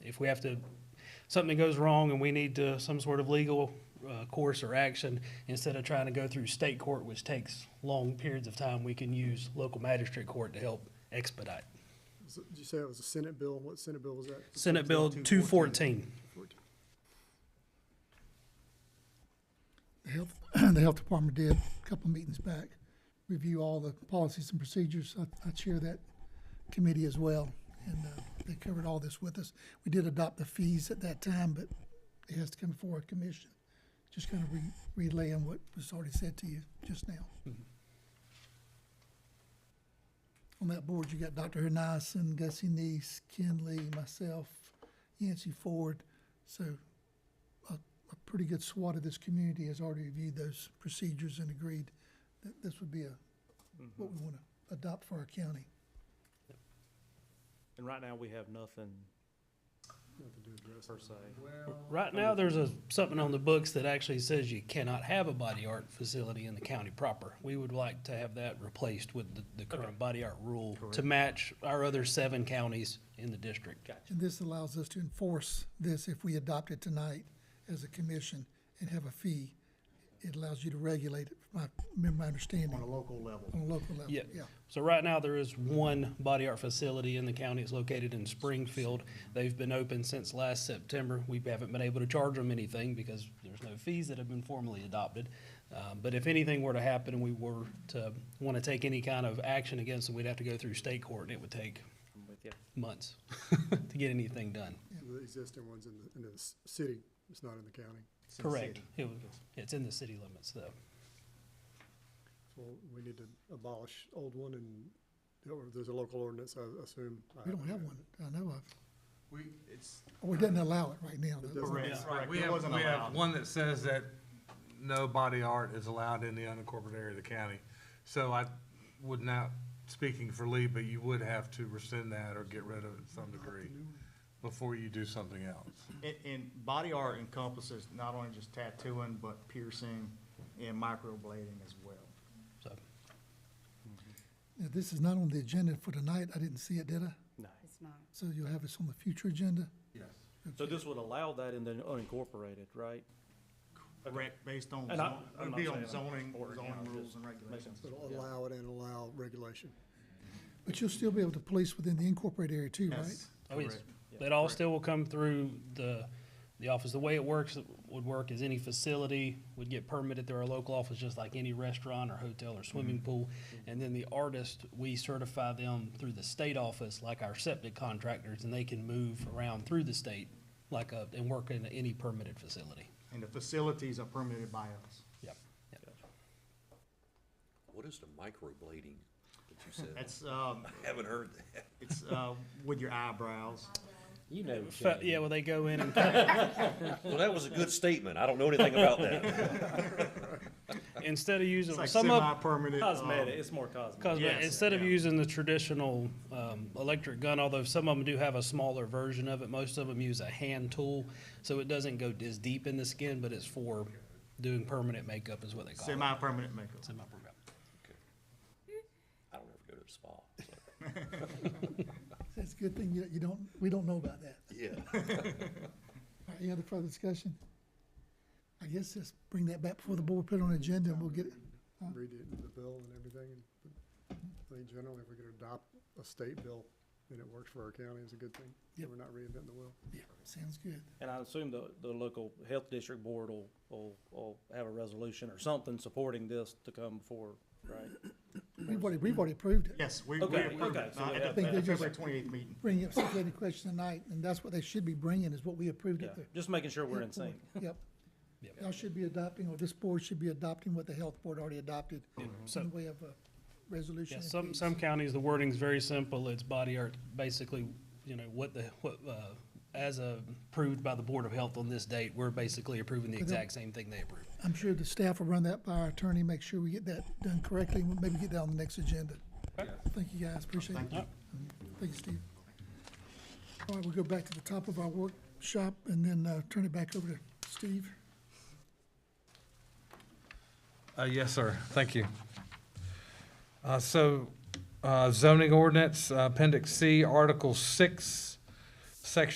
if we have to, something goes wrong and we need to, some sort of legal uh, course or action, instead of trying to go through state court, which takes long periods of time, we can use local magistrate court to help expedite. So, Did you say it was a Senate bill? What Senate bill was that? Senate Bill two fourteen. The health, the health department did a couple meetings back, review all the policies and procedures. I, I chair that committee as well. And, uh, they covered all this with us. We did adopt the fees at that time, but it has to come before a commission. Just kind of re, relaying what was already said to you just now. On that board, you got Dr. Hernison, Gussie Neese, Ken Lee, myself, Yancy Ford. So a, a pretty good swat of this community has already reviewed those procedures and agreed that this would be a, what we want to adopt for our county. And right now, we have nothing per se. Right now, there's a, something on the books that actually says you cannot have a body art facility in the county proper. We would like to have that replaced with the, the current body art rule to match our other seven counties in the district. And this allows us to enforce this if we adopt it tonight as a commission and have a fee. It allows you to regulate it, from my, remember my understanding, On a on local level. a local level, Yeah. yeah. So right now, there is one body art facility in the county. It's located in Springfield. They've been open since last September. We haven't been able to charge them anything because there's no fees that have been formally adopted. Uh, But if anything were to happen and we were to want to take any kind of action against them, we'd have to go through state court and it would take I'm with you. months to get anything done. The existing ones in the, in the s- city, it's not in the county. It's in the Correct. city. It was- It's in the city limits though. So we need to abolish old one and, or there's a local ordinance, I assume. I We don't have one, I know of, We, it's. or it doesn't allow it right now. It though. doesn't- Correct. We have, we have one that says that no body art is allowed in the unincorporated area of the county. So I would not, speaking for Lee, but you would have to rescind that or get rid of it to some degree before you do something else. And, and body art encompasses not only just tattooing, but piercing and microblading as well. So Now, this is not on the agenda for tonight, I didn't see it, did I? No. It's not. So you'll have this on the future agenda? So this would allow that in the unincorporated, right? Correct, based on, And I- zon- I'm it'd not be saying on I'm zoning, for it now, zoning just rules and making regulations. It'll allow it and allow regulation. But you'll still be able to police within the incorporated area too, right? Yes, Oh, yes. correct. That all still will come through the, the office. The way it works, would work is any facility would get permitted through our local office, just like any restaurant or hotel or Mm-hmm. swimming pool. And then the artist, we certify them through the state office, like our septic contractors, and they can move around through the state, like, a- and work in any permitted facility. And the facilities are permitted by us. Yep. Yep. What is the microblading that you said? That's, um, I haven't heard that. it's, uh, with your eyebrows. You know, Fe- Yeah, well, they go in and Well, that was a good statement. I don't know anything about that. instead of It's using, like some of, semi-permanent. um, cosmetic, it's more cosmetic. cause Yes, instead of yeah. using the traditional, um, electric gun, although some of them do have a smaller version of it, most of them use a hand tool. So it doesn't go as deep in the skin, but it's for doing permanent makeup is what they call it. Semi-permanent makeup. Semi-permanent. I don't ever go to the spa. so, That's a good thing, you, you don't, we don't know about that. Yeah. All right, Any other further discussion? I guess just bring that back before the board, put it on the agenda, and we'll get it. Read it in the bill and everything. and I think generally, if we could adopt a state bill and it works for our county, it's a good thing. Yep. We're not reinventing the wheel. Yeah, sounds good. And I assume the, the local health district board will, will, will have a resolution or something supporting this to come before, right? We've already, we've already approved it. Yes, we, we Okay, approved okay, it. so we Uh, have At the that. at the February twenty-eighth meeting. Bring up submitted question tonight, and that's what they should be bringing, is what we approved Yeah, at the. just making sure we're in sync. Yep. Yep. Y'all should be adopting, or this board should be adopting what the health board already adopted Mm-hmm. So- in the way of a resolution. Yeah, and some, fees. some counties, the wording's very simple. It's body art, basically, you know, what the, what, uh, as uh, approved by the Board of Health on this date, we're basically approving the exact same thing they approved. I'm sure the staff will run that by our attorney, make sure we get that done correctly, and maybe get that on the next agenda. Thank you, guys, appreciate it. Thank you, Steve. All right, we'll go back to the top of our workshop and then uh, turn it back over to Steve. Uh, yes, sir. Thank you. Uh, so, uh, zoning ordinance, uh, appendix C, article six, section